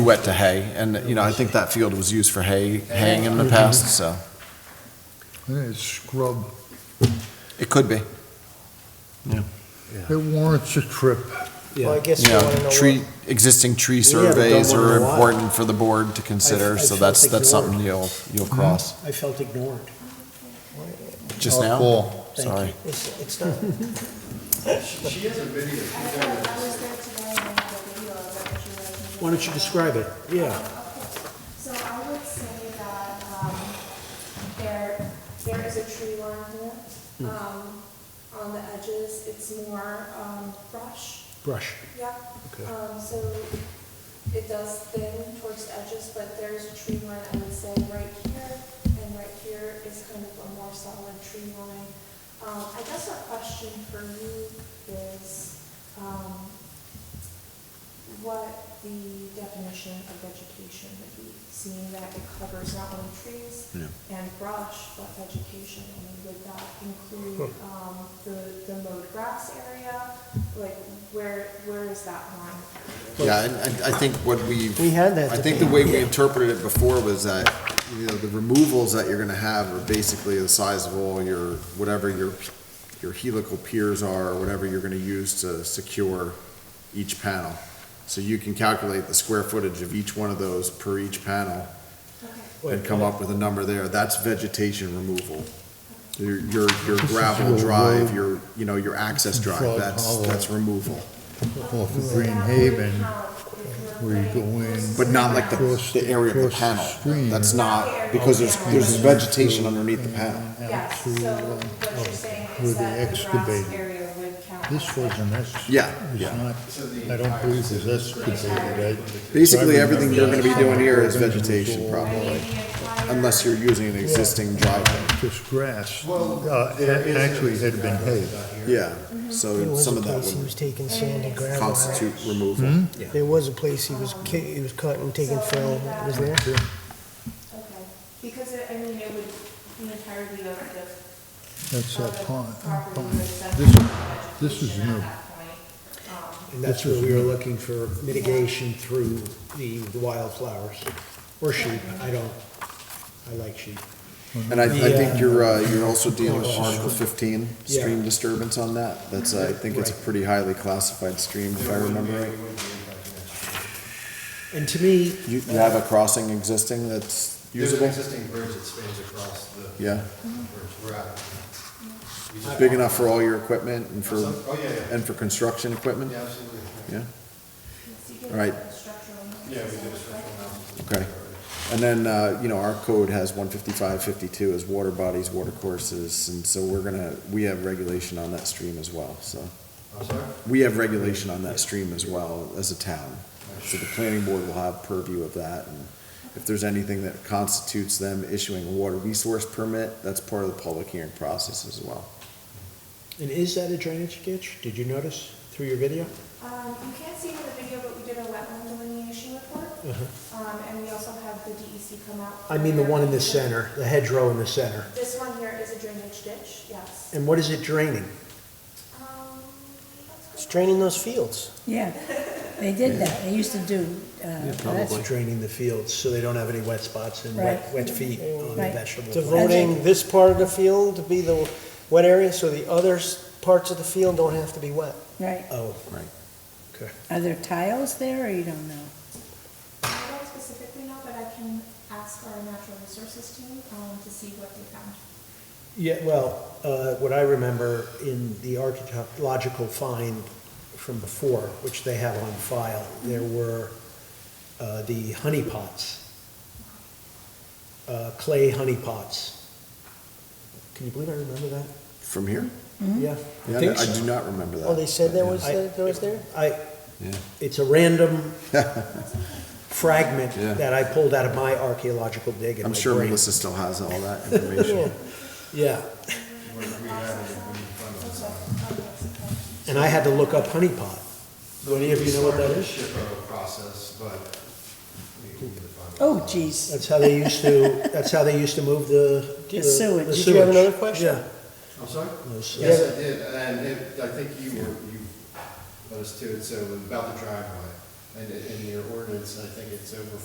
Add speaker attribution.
Speaker 1: wet to hay, and, you know, I think that field was used for hay, haying in the past, so
Speaker 2: And it's scrub.
Speaker 1: it could be.
Speaker 2: It warrants a trip.
Speaker 3: Well, I guess
Speaker 1: You
Speaker 3: you want to
Speaker 1: know,
Speaker 3: know what.
Speaker 1: tree, existing tree
Speaker 3: Yeah, but don't
Speaker 1: surveys
Speaker 3: wanna
Speaker 1: are
Speaker 3: know why.
Speaker 1: important for the board to consider,
Speaker 3: I
Speaker 1: so
Speaker 3: felt
Speaker 1: that's, that's
Speaker 3: ignored. Mm-hmm.
Speaker 1: something you'll, you'll cross.
Speaker 3: I felt ignored.
Speaker 1: Just
Speaker 2: Oh,
Speaker 1: now?
Speaker 2: cool.
Speaker 3: Thank you.
Speaker 1: Sorry.
Speaker 3: It's, it's not,
Speaker 4: I I was there today and I had a video of it, would you like me to-
Speaker 3: why don't you describe it? Yeah.
Speaker 4: So I would say that, um, there, there is a tree line
Speaker 3: Hmm.
Speaker 4: here, um, on the edges, it's more, um, brush,
Speaker 3: Brush.
Speaker 4: yeah.
Speaker 3: Okay.
Speaker 4: Um, so it does thin towards the edges, but there's a tree line, I would say, right here and right here is kind of a more solid tree line. Um, I guess a question for you is, um, what the definition of vegetation would be, seeing that it covers not only trees and brush, but vegetation, I mean, would that include, um, the, the mowed grass area? Like, where, where is that line?
Speaker 1: Yeah, and I, I think what we've.
Speaker 3: We had that
Speaker 1: I think the way we interpreted it before was that, you know, the removals that you're gonna have are basically the size of all your, whatever your, your helical piers are, or whatever you're gonna use to secure each panel. So you can calculate the square footage of each one of those per each panel
Speaker 4: Okay.
Speaker 1: and come up with a number there. That's vegetation removal. Your, your your gravel drive, your, you know, your access drive,
Speaker 2: Frog
Speaker 1: that's,
Speaker 2: Hollow.
Speaker 1: that's removal.
Speaker 2: Off of
Speaker 4: So
Speaker 2: Green
Speaker 4: Um, that would
Speaker 2: Haven,
Speaker 4: count if
Speaker 2: where
Speaker 4: we're
Speaker 2: you go
Speaker 4: putting
Speaker 2: in.
Speaker 4: those-
Speaker 1: But not like the,
Speaker 2: Across-
Speaker 1: the area of the
Speaker 2: across the
Speaker 1: panel.
Speaker 2: stream.
Speaker 1: That's not, because there's, there's vegetation underneath the panel.
Speaker 4: Yes, so what you're saying
Speaker 2: uh, where
Speaker 4: is
Speaker 2: they
Speaker 4: that the grass
Speaker 2: excavated.
Speaker 4: area would count.
Speaker 2: This
Speaker 4: as
Speaker 2: wasn't excavated.
Speaker 1: Yeah,
Speaker 2: It's
Speaker 1: yeah.
Speaker 2: not, I don't believe it was excavated, I.
Speaker 1: Basically, everything you're gonna be doing here is
Speaker 2: I remember-
Speaker 1: vegetation,
Speaker 4: I mean,
Speaker 1: probably,
Speaker 4: the entire.
Speaker 1: unless you're using an existing driveway.
Speaker 2: Just grass. Uh, it actually had been hay.
Speaker 1: Yeah,
Speaker 3: There
Speaker 1: so
Speaker 3: was a
Speaker 1: some of that
Speaker 3: place he was
Speaker 1: would
Speaker 3: taking sand and gravel.
Speaker 1: constitute removal.
Speaker 3: There was a place he was, ca- he was cutting, taking fill. It was there.
Speaker 4: Okay, because it, I mean, it would, the entirety of the.
Speaker 2: That's
Speaker 4: of
Speaker 2: that
Speaker 4: the
Speaker 2: pond.
Speaker 4: property
Speaker 2: pond.
Speaker 4: would accept
Speaker 2: This, this
Speaker 4: vegetation
Speaker 2: is
Speaker 4: at
Speaker 2: new.
Speaker 4: that point. Um,
Speaker 3: And that's where we were looking for mitigation through the wildflowers or sheep. I don't, I like sheep.
Speaker 1: And I, I think
Speaker 3: Yeah.
Speaker 1: you're, uh, you're also dealing with Article fifteen,
Speaker 3: Yeah.
Speaker 1: stream disturbance on that. That's, I think it's a
Speaker 3: Right.
Speaker 1: pretty highly classified stream, if I remember right.
Speaker 3: And to me,
Speaker 1: You, you have a crossing existing that's
Speaker 5: There's an
Speaker 1: usable?
Speaker 5: existing bridge that spans across the.
Speaker 1: Yeah.
Speaker 5: Bridge, we're at. We
Speaker 4: Mm-hmm.
Speaker 5: just-
Speaker 1: Big enough for all your equipment and for,
Speaker 5: Oh, yeah, yeah,
Speaker 1: and for construction equipment?
Speaker 5: yeah, absolutely.
Speaker 1: Yeah,
Speaker 4: so you get
Speaker 1: Right.
Speaker 4: that structural
Speaker 5: Yeah, we
Speaker 4: analysis
Speaker 5: did a
Speaker 4: of
Speaker 5: structural
Speaker 4: it.
Speaker 5: analysis.
Speaker 1: okay. And then, uh, you know, our code has one fifty-five, fifty-two as water bodies, water courses, and so we're gonna, we have regulation on that stream as well, so.
Speaker 5: I'm sorry?
Speaker 1: We have regulation on that stream as well as a town. So the planning board will have purview of that, and if there's anything that constitutes them issuing a water resource permit, that's part of the public hearing process as well.
Speaker 3: and is that a drainage ditch? Did you notice through your video?
Speaker 4: Um, you can't see it in the video, but we did a wetland delineation report. Um, and we also have the DEC come out.
Speaker 3: Uh-huh. I mean, the one in the center, the hedgerow in the center.
Speaker 4: This one here is a drainage ditch, yes.
Speaker 3: And what is it draining?
Speaker 4: Um, that's
Speaker 6: It's
Speaker 4: good.
Speaker 6: draining those fields.
Speaker 7: Yeah, they did that, they used to do, uh,
Speaker 3: That's draining the fields, so they don't have any wet spots and wet,
Speaker 7: Right.
Speaker 3: wet feet on the
Speaker 7: Right.
Speaker 3: vegetable. plant.
Speaker 6: Devoting this part of the field to be the wet area, so the other s- parts of the field don't have to be wet.
Speaker 7: right,
Speaker 3: Oh,
Speaker 7: are there tiles there, or you don't know?
Speaker 4: Um, I don't specifically know, but I can ask our natural resources team, um, to see what they found.
Speaker 3: yeah, well, uh, what I remember in the archaeological find from before, which they have on file, there
Speaker 7: Mm-hmm.
Speaker 3: were uh, the honey pots, uh, clay honey pots. Can you believe I remember that?
Speaker 1: From here?
Speaker 7: Mm-hmm.
Speaker 3: Yeah.
Speaker 1: Yeah,
Speaker 3: think
Speaker 1: I
Speaker 3: so.
Speaker 1: do not remember that.
Speaker 6: Oh, they said there
Speaker 1: Yeah.
Speaker 6: was, that there was there?
Speaker 3: I,
Speaker 1: Yeah.
Speaker 3: it's a random fragment
Speaker 1: Yeah.
Speaker 3: that I pulled out of my archaeological dig in
Speaker 1: I'm
Speaker 3: my
Speaker 1: sure
Speaker 3: brain.
Speaker 1: Melissa still has all that information.
Speaker 3: Yeah,
Speaker 5: We're- we added it, we didn't find it.
Speaker 3: and I had to look up honey pot. Do any of you know what that
Speaker 5: We
Speaker 3: is?
Speaker 5: started the SHPO process, but we we didn't find it.
Speaker 7: Oh, geez,
Speaker 3: That's how they used to, that's how they used to move the.
Speaker 7: The sewage.
Speaker 3: the
Speaker 7: Did
Speaker 6: you have
Speaker 3: sewage.
Speaker 6: another question?
Speaker 3: Yeah.
Speaker 5: I'm sorry?
Speaker 3: No, so-
Speaker 5: Yes, I did, and it, I think you were, you let us to it, so it was about the driveway. And in your ordinance, I think it's over